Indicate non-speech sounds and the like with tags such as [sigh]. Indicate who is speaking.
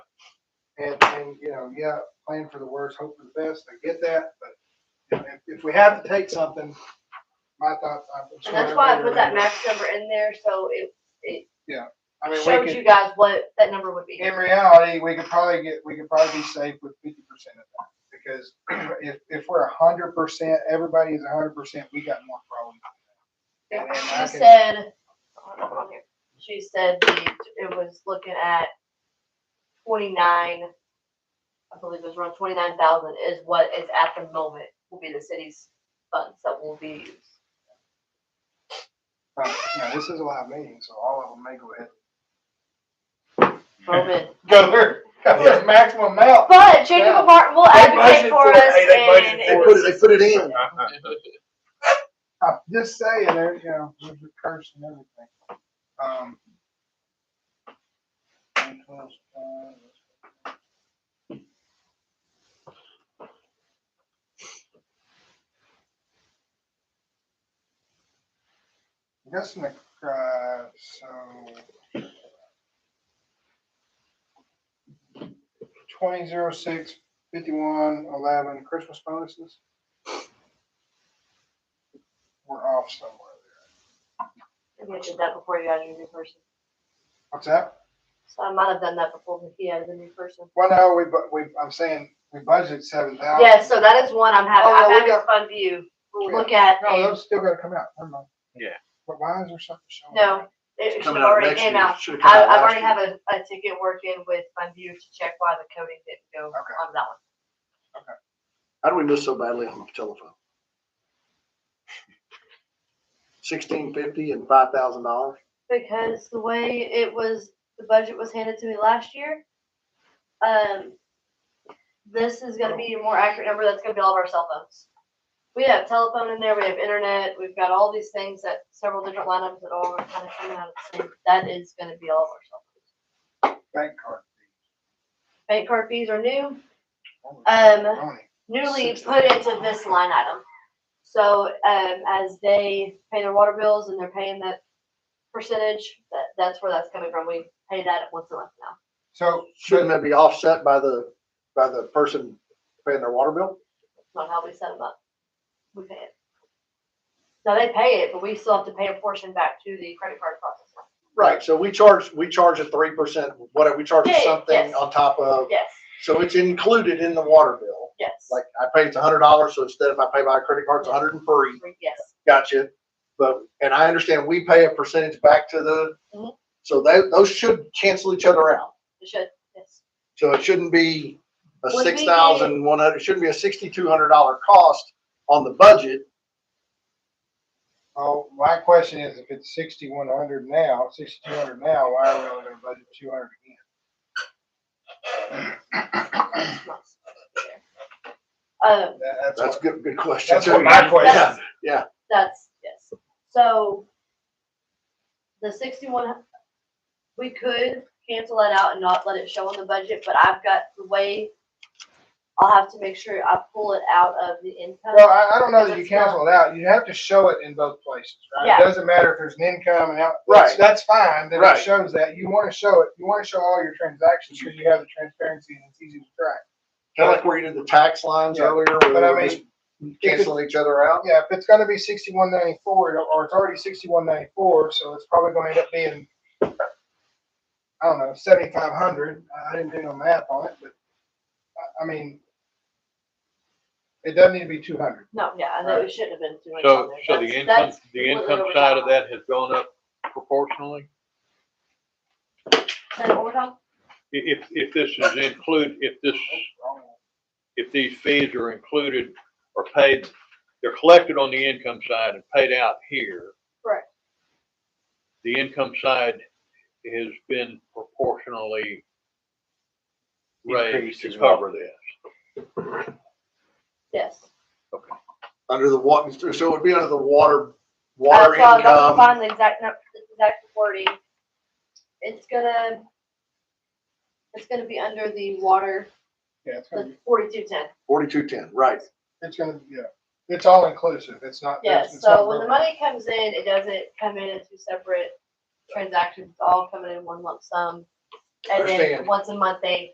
Speaker 1: And, and, you know, yeah, plan for the worst, hope for the best, I get that, but if, if we have to take something, my thoughts, I'm.
Speaker 2: And that's why I put that max number in there, so it
Speaker 1: I mean,
Speaker 2: showed
Speaker 1: we could,
Speaker 2: you guys what that number would be.
Speaker 1: in reality, we could probably get, we could probably be safe with fifty percent of that. Because [clears throat] if, if we're a hundred percent, everybody is a hundred percent, we got more problems. And- and I
Speaker 2: She
Speaker 1: can-
Speaker 2: said, hold on, hold on here. she said the- it was looking at twenty-nine, I believe it was around twenty-nine thousand is what is at the moment will be the city's funds that will be used.
Speaker 1: Uh, Now, this is a live meeting, so all of them may go ahead.
Speaker 2: Roman.
Speaker 1: Go there, go there, maximum amount.
Speaker 2: But Jacob Martin will advocate
Speaker 3: budgeted
Speaker 2: for
Speaker 3: for it.
Speaker 2: us
Speaker 3: Hey, they budgeted
Speaker 2: and it
Speaker 4: They
Speaker 3: for it.
Speaker 4: put
Speaker 2: was
Speaker 4: it, they put it in.
Speaker 1: I'm just saying, there, you know, with the curse and everything. Um. and plus, uh, I guess in the, uh, so. Twenty zero six fifty-one eleven Christmas bonuses were off somewhere there.
Speaker 2: I mentioned that before you got a new person.
Speaker 1: What's that?
Speaker 2: So I might have done that before he had a new person.
Speaker 1: Well, no, we, bu- we, I'm saying, we budgeted seven thousand.
Speaker 2: Yeah, so that is one I'm
Speaker 1: Oh,
Speaker 2: having, I'm
Speaker 1: yeah, we Oh,
Speaker 2: having a fun view. We'll
Speaker 1: Yeah.
Speaker 2: look at,
Speaker 1: No,
Speaker 2: and
Speaker 1: those still gotta come out, never mind.
Speaker 3: Yeah.
Speaker 1: But why is there something showing?
Speaker 2: No. it should
Speaker 4: Coming out
Speaker 2: already
Speaker 4: next
Speaker 2: came
Speaker 4: year.
Speaker 2: out.
Speaker 4: Should've come
Speaker 2: I,
Speaker 4: out
Speaker 2: I've
Speaker 4: last
Speaker 2: already
Speaker 4: year.
Speaker 2: have a, a ticket working with fun view to check why the coding didn't go
Speaker 1: Okay.
Speaker 2: on that one.
Speaker 4: How do we miss so badly on the telephone? Sixteen fifty and five thousand dollars?
Speaker 2: Because the way it was, the budget was handed to me last year, um, this is gonna be a more accurate number, that's gonna be all of our cell phones. We have telephone in there, we have internet, we've got all these things that, several different lineups that all are kind of coming out at the same, that is gonna be all of our cell phones.
Speaker 1: Bank card.
Speaker 2: Bank card fees are new,
Speaker 1: Oh,
Speaker 2: Um,
Speaker 1: Tony.
Speaker 2: newly
Speaker 4: Six
Speaker 2: put
Speaker 4: thousand.
Speaker 2: into this line item. So, um, as they pay their water bills and they're paying that percentage, that, that's where that's coming from, we pay that once a month now.
Speaker 1: So,
Speaker 4: Shouldn't that be offset by the, by the person paying their water bill?
Speaker 2: on how we set them up. We pay it. Now they pay it, but we still have to pay a portion back to the credit card processor.
Speaker 4: Right, so we charge, we charge a three percent, whatever, we charge
Speaker 2: Yeah, yeah,
Speaker 4: something
Speaker 2: yes.
Speaker 4: on top of,
Speaker 2: Yes,
Speaker 4: so it's included in the water bill.
Speaker 2: yes.
Speaker 4: Like, I pay it's a hundred dollars, so instead of I pay by credit card, it's a hundred and three.
Speaker 2: Yes,
Speaker 4: Gotcha. But, and I understand we pay a percentage back to the,
Speaker 2: Mhm.
Speaker 4: so they, those should cancel each other out.
Speaker 2: it should, yes.
Speaker 4: So it shouldn't be a
Speaker 2: Would we
Speaker 4: six thousand one hundred, it shouldn't be a sixty-two hundred dollar cost on the budget.
Speaker 1: oh, my question is, if it's sixty-one hundred now, sixty-two hundred now, why are we only gonna budget two hundred again?
Speaker 2: it's not there.
Speaker 1: That-
Speaker 2: Um,
Speaker 1: That's
Speaker 4: That's a
Speaker 1: what,
Speaker 4: good, good question.
Speaker 1: that's what my
Speaker 2: That's-
Speaker 1: question.
Speaker 2: that's, yes. So the sixty-one, we could cancel that out and not let it show on the budget, but I've got the way, I'll have to make sure I pull it out of the income.
Speaker 1: Well, I, I don't know that you
Speaker 2: That's not-
Speaker 1: cancel it out, you have to show it in both places, right?
Speaker 2: Yeah.
Speaker 1: It doesn't matter if there's an income and out, that's,
Speaker 4: Right.
Speaker 1: that's fine, then it
Speaker 4: Right.
Speaker 1: shows that, you wanna show it, you wanna show all your transactions, because you have the transparency and it's easy to track.
Speaker 4: Kind of like where you did the tax lines
Speaker 1: Yeah,
Speaker 4: earlier, where
Speaker 1: but I
Speaker 4: they were just canceling each other out.
Speaker 1: Yeah, if it's gonna be sixty-one ninety-four, or it's already sixty-one ninety-four, so it's probably gonna end up being, I don't know, seventy-five hundred, I didn't do no math on it, but, I, I mean, it doesn't need to be two hundred.
Speaker 2: No, yeah, I know it shouldn't have been too much on
Speaker 3: So,
Speaker 2: there.
Speaker 3: so the
Speaker 2: That's-
Speaker 3: income,
Speaker 2: that's
Speaker 3: the
Speaker 2: completely
Speaker 3: income
Speaker 2: what we're
Speaker 3: side of
Speaker 2: talking
Speaker 3: that has gone up proportionally?
Speaker 2: Say that one more time?
Speaker 3: I- If, if this is include, if this, if these fees are included or paid, they're collected on the income side and paid out here.
Speaker 2: Correct.
Speaker 3: The income side has been proportionally raised
Speaker 4: Increased
Speaker 3: to
Speaker 4: as well.
Speaker 3: cover this.
Speaker 2: Yes.
Speaker 4: Under the water, so it would be under the water,
Speaker 2: Uh,
Speaker 4: water
Speaker 2: so I was gonna
Speaker 4: income.
Speaker 2: Find the exact, nu- the exact wording. It's gonna, it's gonna be under the water,
Speaker 1: Yeah, it's gonna
Speaker 2: the
Speaker 1: be,
Speaker 2: forty-two ten.
Speaker 4: Forty-two ten, right.
Speaker 1: it's gonna, be- yeah, it's all inclusive, it's not.
Speaker 2: Yes,
Speaker 1: it's not
Speaker 2: so when the
Speaker 1: broken.
Speaker 2: money comes in, it doesn't come in as two separate transactions, it's all coming in one lump sum. And then,
Speaker 4: Understand.
Speaker 2: once a month, they